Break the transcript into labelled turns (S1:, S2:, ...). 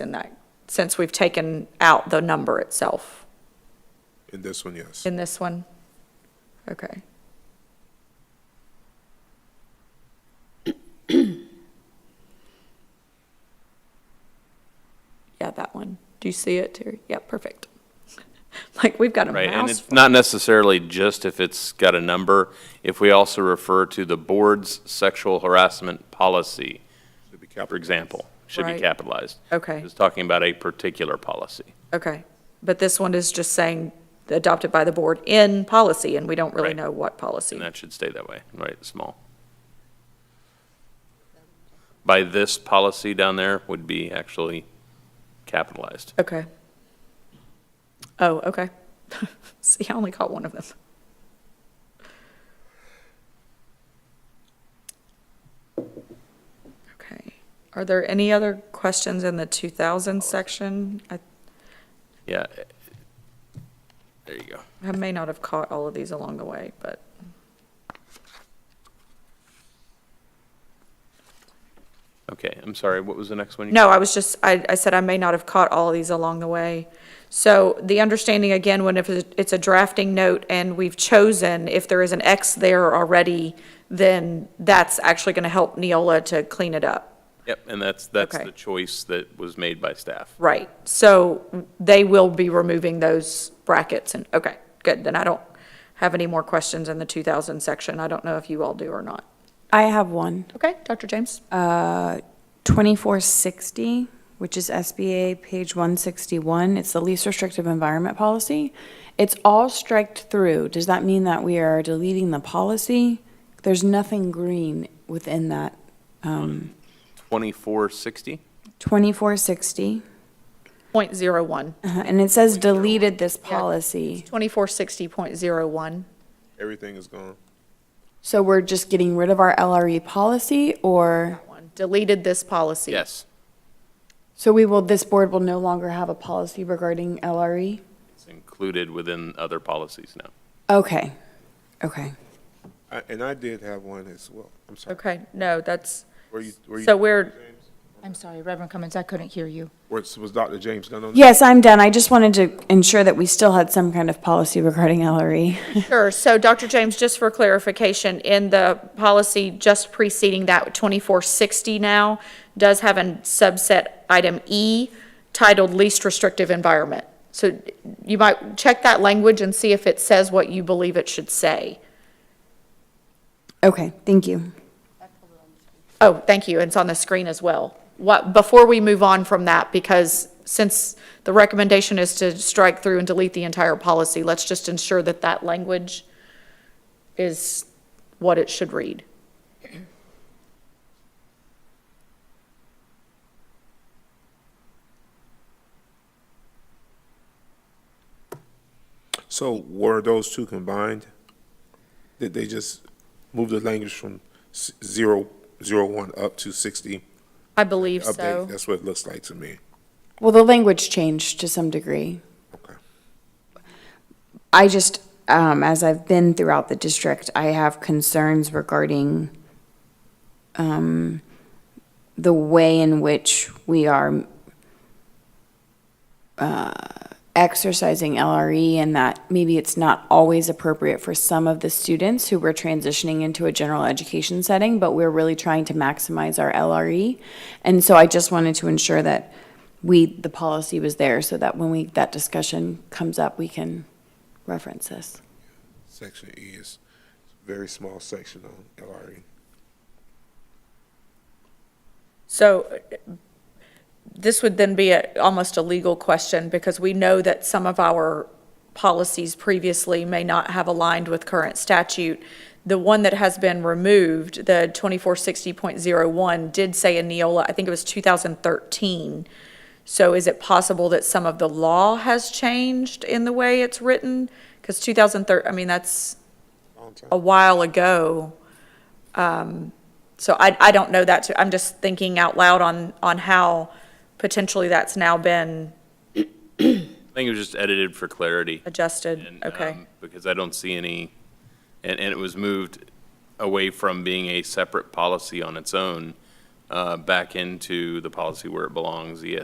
S1: in that, since we've taken out the number itself
S2: In this one, yes.
S1: in this one? Okay. Yeah, that one. Do you see it, Terry? Yeah, perfect. Like, we've got a
S3: Right, and
S1: mouse.
S3: it's not necessarily just if it's got a number, if we also refer to the board's sexual harassment policy,
S2: Should be
S3: for
S2: capital.
S3: example, should be
S1: Right.
S3: capitalized.
S1: Okay.
S3: It's talking about a particular policy.
S1: Okay, but this one is just saying adopted by the board in policy, and we don't really
S3: Right.
S1: know what policy.
S3: And that should stay that way, right, small. By this policy down there would be actually capitalized.
S1: Okay. Oh, okay. See, I only caught one of them. Okay. Are there any other questions in the 2000 section? I
S3: Yeah. There you go.
S1: I may not have caught all of these along the way, but.
S3: Okay, I'm sorry, what was the next one? you-
S1: No, I was just, I, I said I may not have caught all of these along the way. So the understanding again, when if it's a drafting note and we've chosen, if there is an X there already, then that's actually going to help Neola to clean it up.
S3: Yep, and that's, that's
S1: Okay.
S3: the choice that was made by staff.
S1: Right, so they will be removing those brackets and, okay, good, then I don't have any more questions in the 2000 section. I don't know if you all do or not.
S4: I have one.
S1: Okay, Dr. James?
S4: 2460, which is SBA page 161. It's the least restrictive environment policy. It's all striked through. Does that mean that we are deleting the policy? There's nothing green within that.
S3: 2460?
S4: 2460,
S1: Point zero one.
S4: Uh-huh, and it says deleted this policy.
S1: 2460.01.
S2: Everything is gone.
S4: So we're just getting rid of our LRE policy or,
S1: Deleted this policy.
S3: Yes.
S4: so we will, this board will no longer have a policy regarding E? LRE?
S3: It's included within other policies now.
S4: Okay, okay.
S2: I- And I did have one as well. I'm sorry.
S1: Okay, no, that's,
S2: Were you- were you-
S1: so we're,
S2: James?
S5: I'm sorry, Reverend Cummins, I couldn't hear you.
S2: Was was Dr. James Gunn on? that?
S4: Yes, I'm done. I just wanted to ensure that we still had some kind of policy regarding E. LRE.
S1: sure, so Dr. James, just for clarification, in the policy just preceding that, 2460 now, does have a subset item E titled least restrictive environment. So you might check that language and see if it says what you believe it should say.
S4: Okay, thank you.
S1: Oh, thank you, and it's on the screen as well. What, before we move on from that, because since the recommendation is to strike through and delete the entire policy, let's just ensure that that language is what it should read.
S2: So were those two combined? Did they just move the language from s- zero, zero one up to sixty?
S1: I believe
S2: Update,
S1: so.
S2: that's what it looks like to me.
S4: Well, the language changed to some degree.
S2: Okay.
S4: I just, um, as I've been throughout the district, I have concerns regarding, um, the way in which we are, uh, exercising LRE and that maybe it's not always appropriate for some of the students who we're transitioning into a general education setting, but we're really trying to maximize our LRE. And so I just wanted to ensure that we, the policy was there so that when we, that discussion comes up, we can reference this.
S2: Section E is very small section on E. LRE.
S1: So uh, this would then be a- almost a legal question, because we know that some of our policies previously may not have aligned with current statute. The one that has been removed, the 2460.01, did say in Neola, I think it was 2013. So is it possible that some of the law has changed in the way it's written? Because 2013, I mean, that's
S2: Long time.
S1: a while ago. Um, So I, I don't know that, too. I'm just thinking out loud on, on how potentially that's now been
S3: I think it was just edited for clarity.
S1: adjusted.
S3: and,
S1: Okay,
S3: um, Because I don't see any, and, and it was moved away from being a separate policy on its own, uh, back into the policy where it belongs, ES